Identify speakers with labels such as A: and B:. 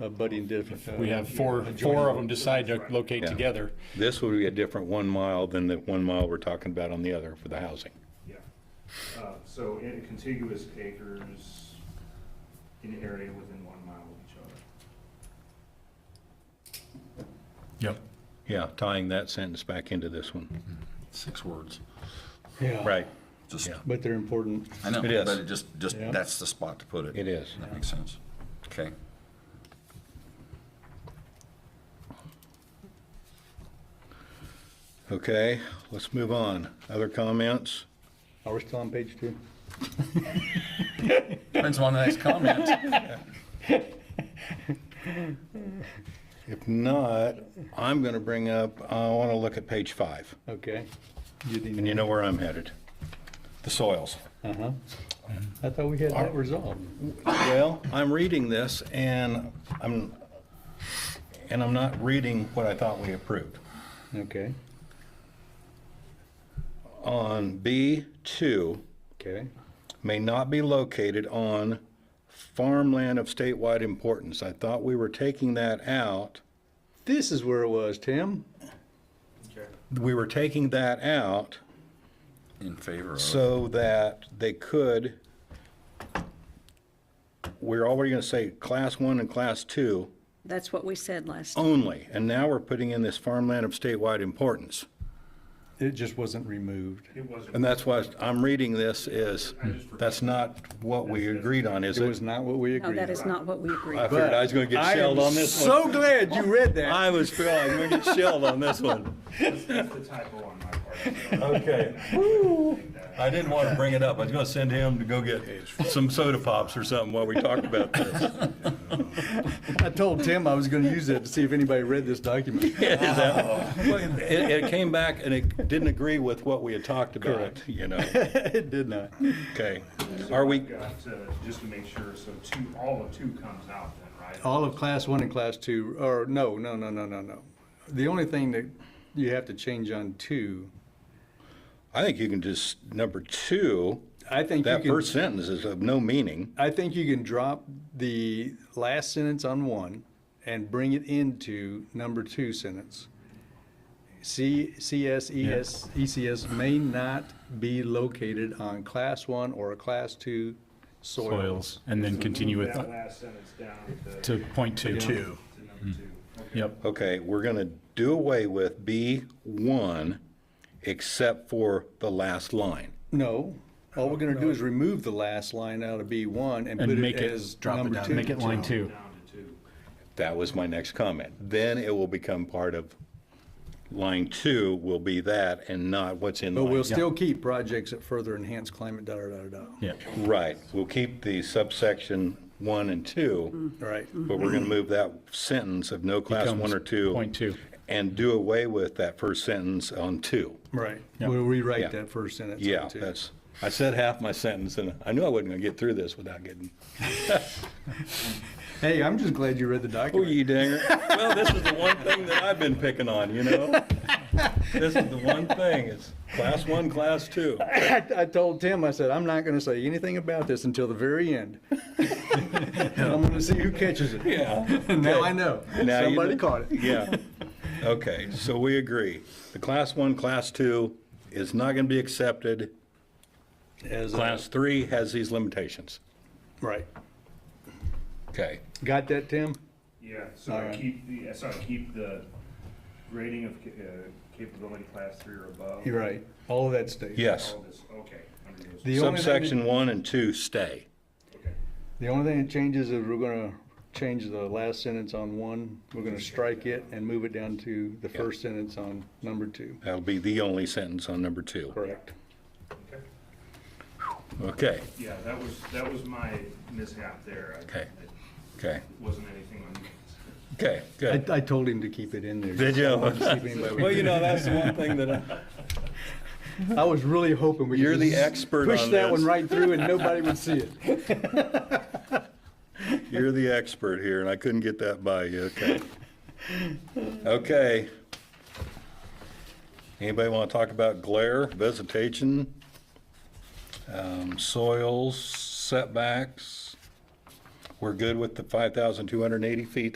A: uh, budding different. uh,
B: We have four, four of them decide to locate
C: Yeah.
B: together.
C: This would be a different one mile than the one mile we're talking about on the other for the housing.
D: Yeah. Uh, So in contiguous acres in area within one mile of each other.
B: Yep.
C: Yeah, tying that sentence back into this one.
E: Six words.
A: Yeah,
C: Right,
E: Just,
C: Yeah.
A: But they're important.
E: I know,
C: It is.
E: but it just, just,
A: Yeah.
E: that's the spot to put it.
C: it is.
E: That makes sense. Okay.
C: Okay, let's move on. Other comments?
A: Are we still on page two?
E: Depends on the next comment.
C: If not, I'm going to bring up, I want to look at page five,
A: Okay. You
C: and
A: didn't,
C: you know where I'm headed. The soils.
A: uh-huh. I thought we had that resolved.
C: Well, I'm reading this and I'm, and I'm not reading what I thought we approved.
A: Okay,
C: On B2,
A: okay.
C: may not be located on farmland of statewide importance. I thought we were taking that out.
A: This is where it was, Tim.
D: Okay.
C: We were taking that out
E: In favor of,
C: so that they could, we're already going to say class one and class two
F: That's what we said
C: Oh,
F: last,
C: only. And now we're putting in this farmland of statewide importance.
A: It just wasn't removed.
D: It wasn't.
C: And that's why I'm reading this is, that's not what we agreed on, is
A: It was
C: it?
A: not what we
F: no,
A: agreed.
F: that is not what we
C: I
F: agreed.
C: figured I was going to get shelled on this one.
A: glad you read
C: I was, feeling I'm going to get shelled on this one.
D: That's that's the typo on my part.
C: Okay. I didn't want to bring it up. I was going to send him to go get some soda pops or something while we talked about this.
A: I told Tim I was gonna use that to see if anybody read this document.
C: Is that- Well, It, it came back and it didn't agree with what we had talked about, you know?
A: It did not.
C: Okay. Are we,
D: Got, uh, just to make sure, so two, all of two comes out then, right?
A: All of class one and class two, or no, no, no, no, no, no. The only thing that you have to change on two,
C: I think you can just, number two,
A: I think you
C: that
A: can,
C: first sentence is of no meaning.
A: I think you can drop the last sentence on one and bring it into number two sentence. C, E CS, ES, ECS may not be located on class one or a class two soils.
B: Soils, and then continue with,
D: That last sentence down to, to
B: to point two.
D: number two. Okay.
B: Yep.
C: Okay, we're going to do away with B1 except for the last line.
A: No, all we're gonna do is remove the last line out of B one and put
B: And make
A: it
B: it-
A: as
E: drop it
A: number
E: down,
A: two.
B: Make it line two.
D: Down to two.
C: That was my next comment. Then it will become part of, line two will be that and not what's in
A: But
C: line.
A: we'll still keep projects that further enhance climate, da, da, da, da, da.
B: Yeah.
C: Right, we'll keep the subsection one and two,
A: right?
C: but we're gonna move that sentence of no class one
B: Becomes
C: or two.
B: point two.
C: And do away with that first sentence on two.
A: Right.
B: Yeah.
A: We'll
C: Yeah.
A: rewrite that first sentence. on
C: Yeah,
A: two.
C: that's, I said half my sentence and I knew I wasn't gonna get through this without getting,
A: Hey, I'm just glad you read the
C: oh,
A: document.
C: you dinger. Well, this is the one thing that I've been picking on, you know? This is the one thing, it's class one, class two.
A: I, I told Tim, I said, I'm not gonna say anything about this until the very end. And I'm gonna see who catches it.
C: Yeah.
A: And now I know.
C: Now you
A: Somebody
C: know.
A: caught it.
C: Yeah. Okay, so we agree. The class one, class two is not going to be accepted.
A: As a-
C: Class three has these limitations.
A: Right.
C: Okay.
A: Got that, Tim?
D: Yeah, so I
A: Alright.
D: keep the, so I keep the grading of ca- uh, capability class three or above.
A: You're right. All of that stays.
C: Yes.
D: All this, okay, under those,
A: The only thing that-
C: Subsection one and two stay.
D: okay.
A: The only thing that changes is we're gonna change the last sentence on one. We're gonna strike it and move it down to the first sentence on number two.
C: That'll be the only sentence on number two.
A: Correct.
D: Okay.
C: Okay,
D: Yeah, that was, that was my mishap there. I-
C: Okay.
D: It
C: okay,
D: wasn't anything on you guys.
C: okay,
A: I,
C: good.
A: I told him to keep it in there.
C: Did you? Well, you
A: you?
C: know, that's the one thing that, I-
A: I was really hoping we could.
C: You're the
A: just
C: expert
A: Push
C: on
A: that one
C: this.
A: right through and nobody would see it.
C: you're the expert here and I couldn't get that by you, okay. Okay. Anybody want to talk about glare, vegetation, um, soils, setbacks? We're good with the 5,280 feet